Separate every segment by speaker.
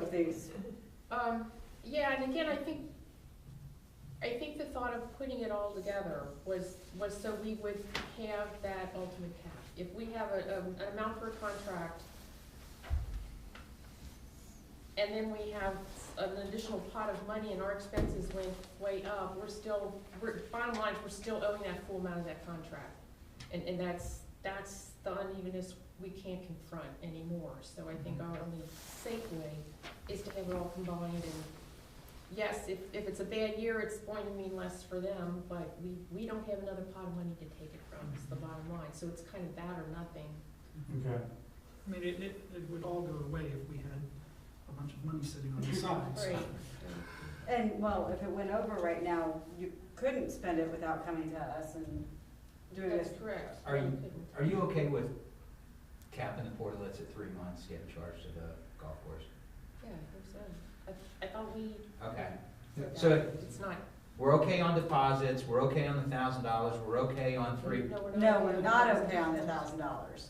Speaker 1: please.
Speaker 2: Um, yeah, and again, I think, I think the thought of putting it all together was, was so we would have that ultimate cap. If we have a, um, an amount for a contract, and then we have an additional pot of money and our expenses went way up, we're still, we're, bottom line, we're still owing that full amount of that contract. And, and that's, that's the unevenness we can't confront anymore, so I think our only safe way is to have it all combined and, yes, if, if it's a bad year, it's going to mean less for them, but we, we don't have another pot of money to take it from, is the bottom line, so it's kind of that or nothing.
Speaker 3: Okay.
Speaker 4: I mean, it, it, it would all go away if we had a bunch of money sitting on the side, so.
Speaker 2: Right.
Speaker 1: And, well, if it went over right now, you couldn't spend it without coming to us and doing
Speaker 2: That's
Speaker 1: this.
Speaker 2: correct.
Speaker 5: Are you- Are you okay with capping the portlets at three months, getting charged to the golf course?
Speaker 2: Yeah, I think so. I, I thought we.
Speaker 5: Okay,
Speaker 2: said
Speaker 5: So-
Speaker 2: that. It's not.
Speaker 5: we're okay on deposits, we're okay on the thousand dollars, we're okay on three,
Speaker 2: No, we're not.
Speaker 1: No, we're not okay on the thousand dollars.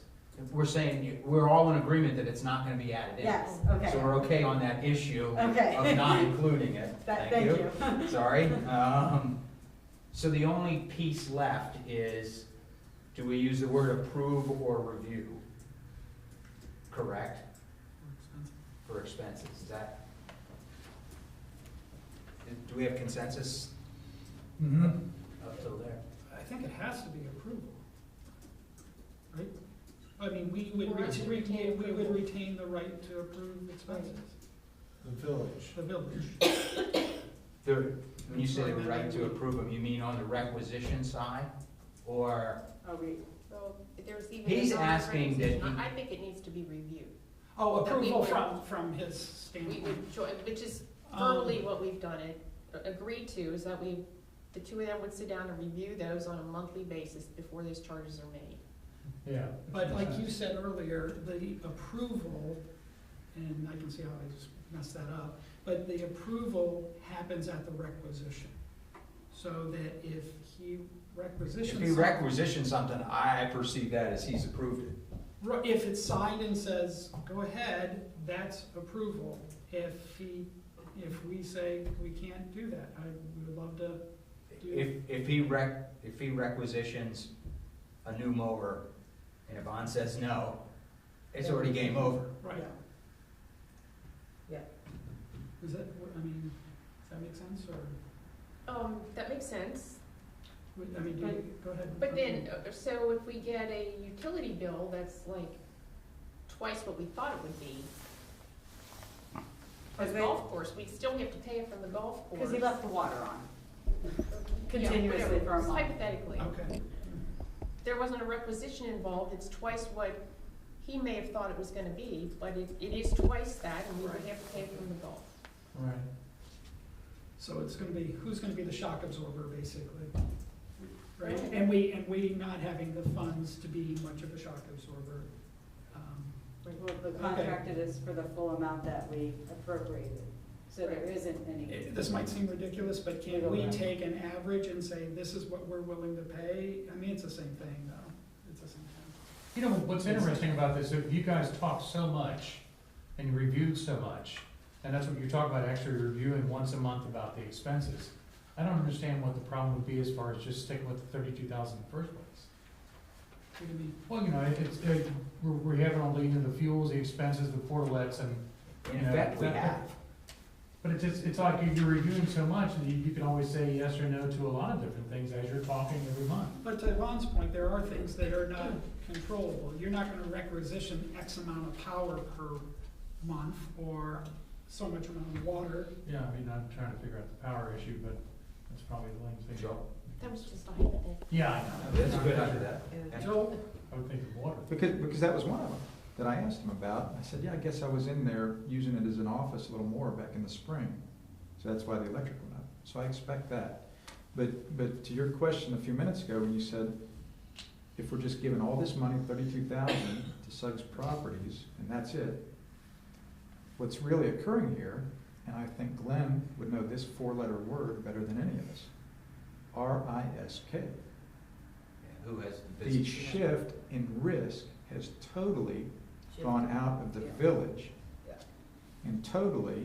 Speaker 5: we're saying, you- we're all in agreement that it's not gonna be added in.
Speaker 1: Yes, okay,
Speaker 5: So we're okay on that issue of
Speaker 1: okay.
Speaker 5: not including it,
Speaker 1: That, thank you.
Speaker 5: Sorry. Um, so the only piece left is, do we use the word approve or review? Correct,
Speaker 4: more expensive.
Speaker 5: for expenses, is that? Do we have consensus
Speaker 3: Mm-hmm.
Speaker 5: up till there?
Speaker 4: I think it has to be approval, right? I mean, we would
Speaker 2: For us to
Speaker 4: retain,
Speaker 2: retain
Speaker 4: we would
Speaker 2: approval.
Speaker 4: retain the right to approve expenses,
Speaker 3: The village.
Speaker 4: the village.
Speaker 5: The, when you say the right to approve them, you mean on the requisition side? Or,
Speaker 1: Are we,
Speaker 2: So there's even.
Speaker 5: He's
Speaker 2: another
Speaker 5: asking that
Speaker 2: requisition.
Speaker 5: he-
Speaker 2: I I think it needs to be reviewed.
Speaker 4: Oh,
Speaker 2: That we
Speaker 4: approval
Speaker 2: would-
Speaker 4: from, from his
Speaker 2: We
Speaker 4: standpoint.
Speaker 2: would join, which is
Speaker 4: Um,
Speaker 2: verbally what we've done it, agreed to, is that we, the two of them would sit down and review those on a monthly basis before those charges are made.
Speaker 3: Yeah.
Speaker 4: But like you said earlier, the approval, and I can see how I just messed that up, but the approval happens at the requisition. So that if he
Speaker 5: if
Speaker 4: requisitions.
Speaker 5: he
Speaker 4: something-
Speaker 5: requisitions something, I perceive that as he's approved it.
Speaker 4: Ri- If it's signed and says, go ahead, that's approval. If he, if we say we can't do that, I we would love to,
Speaker 5: If, if he rec, if he requisitions a new mower, and Yvonne says no, it's already game over.
Speaker 4: right,
Speaker 1: yeah,
Speaker 4: is that, what- I mean, does that make sense, or,
Speaker 2: Um, that makes sense,
Speaker 4: I mean, do you, go ahead.
Speaker 2: but then, uh, so if we get a utility bill that's like twice what we thought it would be, for the
Speaker 1: Because they-
Speaker 2: golf course, we still have to pay it from the golf course.
Speaker 1: because he left the water on
Speaker 2: Yeah,
Speaker 1: continuously
Speaker 2: whatever,
Speaker 1: for a
Speaker 2: just
Speaker 1: month.
Speaker 2: Hypothetically.
Speaker 4: Okay,
Speaker 2: there wasn't a requisition involved, it's twice what he may have thought it was gonna be, but it, it is twice that, and we would have to pay from the golf.
Speaker 3: Right.
Speaker 4: so it's gonna be, who's gonna be the shock absorber, basically? Right, and we, and we not having the funds to be much of a shock absorber, um,
Speaker 1: Well, the contracted is for the full amount that we appropriated, so there isn't any.
Speaker 4: It- This might seem ridiculous, but can we take an average and say, this is what we're willing to pay? I mean, it's the same thing, though. It's the same thing.
Speaker 3: You know, what's interesting about this, if you guys talk so much and you reviewed so much, and that's what you're talking about, actually reviewing once a month about the expenses. I don't understand what the problem would be as far as just sticking with the thirty-two thousand in the first place.
Speaker 4: What do you mean?
Speaker 3: Well, you know, it- it's, it, we're, we're having all the, you know, the fuels, the expenses, the portlets, and,
Speaker 5: In fact, we have.
Speaker 3: but it's just, it's like you're reviewing so much, and you, you can always say yes or no to a lot of different things as you're talking every month.
Speaker 4: But to Lon's point, there are things that are not controllable. You're not gonna requisition X amount of power per month or so much amount of water.
Speaker 3: Yeah, I mean, I'm trying to figure out the power issue, but that's probably the lame thing.
Speaker 5: Joe?
Speaker 2: That was just a hypothetical.
Speaker 3: Yeah, I know.
Speaker 5: That's a good idea.
Speaker 4: Joel,
Speaker 3: I would think of water.
Speaker 6: Because, because that was one of them that I asked him about. I said, yeah, I guess I was in there using it as an office a little more back in the spring. So that's why the electric went up. So I expect that. But, but to your question a few minutes ago, when you said, if we're just giving all this money, thirty-two thousand, to Suggs Properties, and that's it, what's really occurring here, and I think Glenn would know this four-letter word better than any of us, R-I-S-K.
Speaker 5: Who has the
Speaker 6: The
Speaker 5: business?
Speaker 6: shift in risk has totally gone out of the village and totally